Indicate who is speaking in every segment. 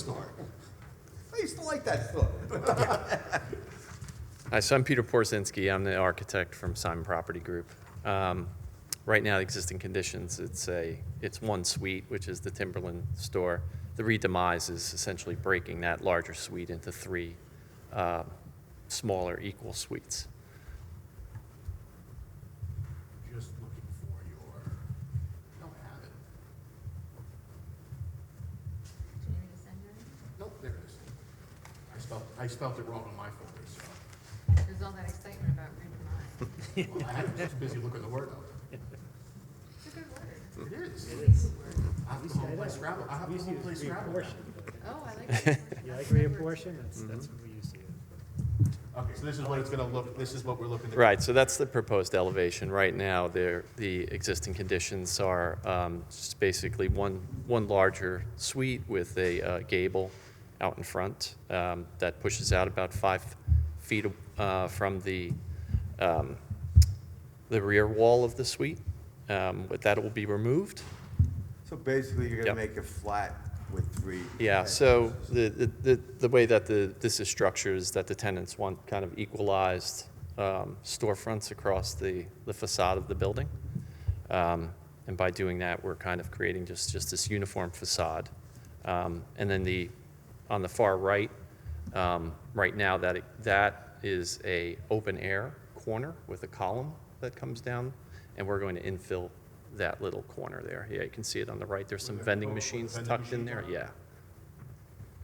Speaker 1: store. I used to like that store.
Speaker 2: Hi, so I'm Peter Porzinski. I'm the architect from Simon Property Group. Um, Right now, the existing conditions, it's a, it's one suite, which is the Timberland store. The redemise is essentially breaking that larger suite into three uh, smaller equal suites.
Speaker 3: Just looking for your, I don't have it.
Speaker 4: Do you want me to send her?
Speaker 3: Nope, there it is. I spelled, I spelled it wrong on my folder, so.
Speaker 4: There's all that excitement about Rubin
Speaker 3: Well, I had, just busy looking the word up.
Speaker 4: It's a good word.
Speaker 3: It is. uh,
Speaker 4: Really good word.
Speaker 3: I have to home play Scrabble. I have to home play Scrabble now.
Speaker 4: Oh, I like that word.
Speaker 5: You like
Speaker 4: That's my word.
Speaker 5: reapportion? That's, that's what we used to use.
Speaker 3: Okay, so this is what it's gonna look, this is what we're looking at.
Speaker 2: Right, so that's the proposed elevation. Right now, there, the existing conditions are um, just basically one, one larger suite with a uh, gable out in front um, that pushes out about five feet uh, from the, um, the rear wall of the suite. Um, But that will be removed.
Speaker 1: So basically, you're gonna
Speaker 2: Yep.
Speaker 1: make it flat with three.
Speaker 2: Yeah, so the, the, the- the way that the, this is structured is that the tenants want kind of equalized um, storefronts across the, the facade of the building. Um, And by doing that, we're kind of creating just, just this uniform facade. Um, And then the, on the far right, um, right now, that, that is a open-air corner with a column that comes down, and we're going to infill that little corner there. Yeah, you can see it on the right, there's some
Speaker 3: Where the-
Speaker 2: vending
Speaker 3: oh, where the
Speaker 2: machines
Speaker 3: vending
Speaker 2: tucked in
Speaker 3: machines
Speaker 2: there,
Speaker 3: are?
Speaker 2: yeah.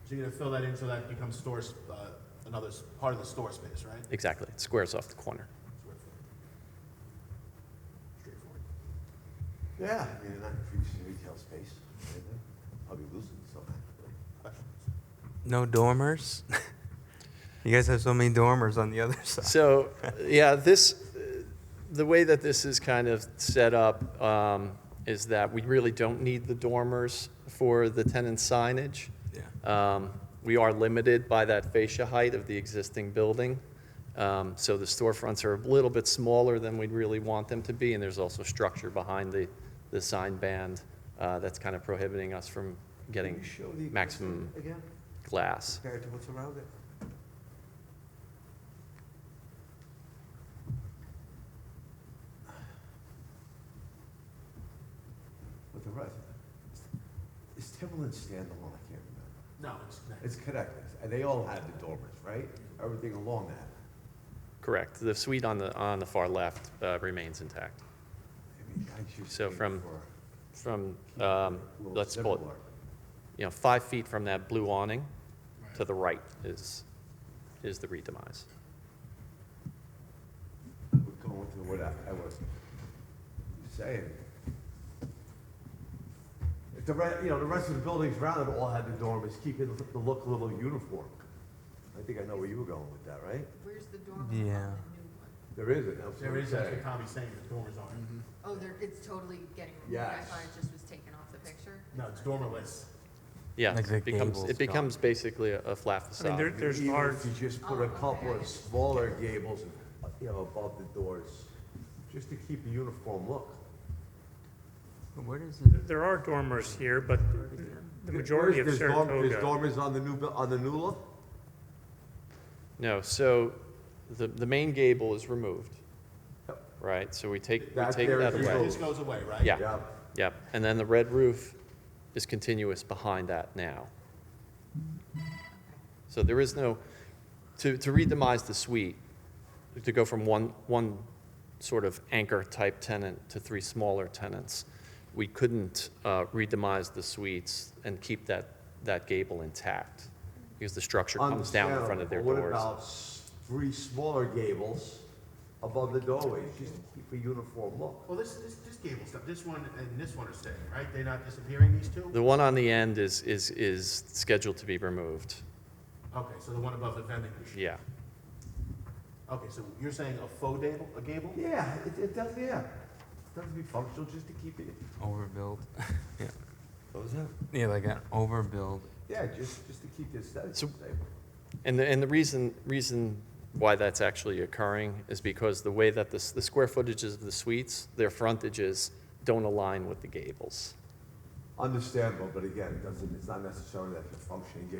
Speaker 3: So you're gonna fill that in so that becomes store, s- uh, another s- part of the store space, right?
Speaker 2: Exactly. It squares off the corner.
Speaker 3: Straightforward.
Speaker 1: Yeah, I mean, not increasing retail space. right? I'll be losing some.
Speaker 6: No dormers? you guys have so many dormers on the other side.
Speaker 2: So, yeah, this, the way that this is kind of set up um, is that we really don't need the dormers for the tenant signage.
Speaker 6: Yeah.
Speaker 2: Um, We are limited by that fascia height of the existing building. Um, So the storefronts are a little bit smaller than we'd really want them to be, and there's also structure behind the, the sign band uh, that's kind of prohibiting us from getting maximum
Speaker 1: Again,
Speaker 2: glass.
Speaker 1: compared to what's around it. With the rest, is Timberland standalone? I can't remember.
Speaker 3: No, it's connected.
Speaker 1: It's connected, and they all have the dormers, right? Everything along that.
Speaker 2: Correct. The suite on the, on the far left uh, remains intact.
Speaker 1: I mean, I just
Speaker 2: So
Speaker 1: think
Speaker 2: from-
Speaker 1: for-
Speaker 2: From, um,
Speaker 1: Well,
Speaker 2: let's call it,
Speaker 1: similar.
Speaker 2: you know, five feet from that blue awning to the right is, is the redemise.
Speaker 1: We're going to what I, I was saying. If The re you know, the rest of the buildings around it all had the dormers, keeping the the look a little uniform. I think I know where you were going with that, right?
Speaker 4: Where's the dormer on the new
Speaker 6: Yeah.
Speaker 4: one?
Speaker 1: There isn't, that's what
Speaker 3: There
Speaker 1: I'm
Speaker 3: is, that's what
Speaker 1: saying.
Speaker 3: Tommy's saying, the dormers aren't.
Speaker 4: Oh, there, it's totally getting removed. I
Speaker 1: Yes.
Speaker 4: thought it just was taken off the picture.
Speaker 3: No, it's dormerless.
Speaker 2: Yeah,
Speaker 6: Like the
Speaker 2: it becomes,
Speaker 6: gables
Speaker 2: it becomes basically a a flat
Speaker 5: I mean, there,
Speaker 2: facade.
Speaker 5: there's
Speaker 1: Even
Speaker 5: large,
Speaker 1: If you just put a couple of smaller gables, uh, you know, above the doors, just to keep a uniform look.
Speaker 6: Where is it?
Speaker 5: there are dormers here, but the
Speaker 1: There-
Speaker 5: majority of
Speaker 1: there's dorm- There's
Speaker 5: Saratoga,
Speaker 1: dormers on the new, bu- on the new look?
Speaker 2: No, so the, the main gable is removed,
Speaker 1: Yep.
Speaker 2: right? So we take, we
Speaker 1: That
Speaker 2: take
Speaker 1: there
Speaker 2: that
Speaker 1: is
Speaker 2: away.
Speaker 1: removed.
Speaker 3: This goes away, right?
Speaker 2: Yeah.
Speaker 1: Yeah.
Speaker 2: Yep, and then the red roof is continuous behind that now. So there is no, to, to re-demise the suite, to go from one, one sort of anchor-type tenant to three smaller tenants, we couldn't uh, re-demise the suites and keep that, that gable intact, because the structure comes down in front of their
Speaker 1: Understandable, but
Speaker 2: doors.
Speaker 1: What about s- three smaller gables above the doorways, just to keep a uniform look?
Speaker 3: Well, this, this, this gable stuff, this one and this one are staying, right? They're not disappearing, these two?
Speaker 2: The one on the end is, is, is scheduled to be removed,
Speaker 3: Okay, so the one above the vending machine.
Speaker 2: yeah.
Speaker 3: Okay, so you're saying a faux gable, a gable?
Speaker 1: Yeah, it, it does, yeah. Doesn't be functional, just to keep it,
Speaker 6: Overbuild. yeah.
Speaker 1: what was that?
Speaker 6: Yeah, like an overbuild.
Speaker 1: Yeah, just, just to keep the aesthetics the
Speaker 2: So-
Speaker 1: same.
Speaker 2: And the, and the reason, reason why that's actually occurring is because the way that the, s- the square footages of the suites, their frontages don't align with the gables.
Speaker 1: Understandable, but again, it doesn't, it's not necessarily that it's a functioning gable.